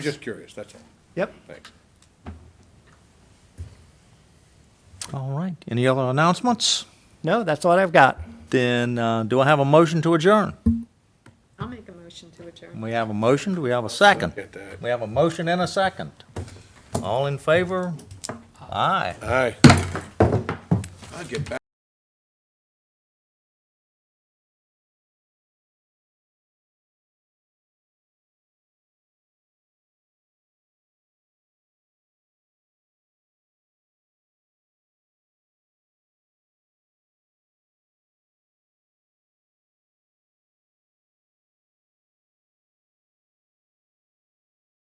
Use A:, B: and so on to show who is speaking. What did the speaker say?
A: Just curious, that's all.
B: Yep.
A: Thanks.
C: All right. Any other announcements?
B: No, that's what I've got.
C: Then uh, do I have a motion to adjourn?
D: I'll make a motion to adjourn.
C: We have a motion. Do we have a second?
A: Get that.
C: We have a motion and a second. All in favor? Aye.
A: Aye. I'll get back.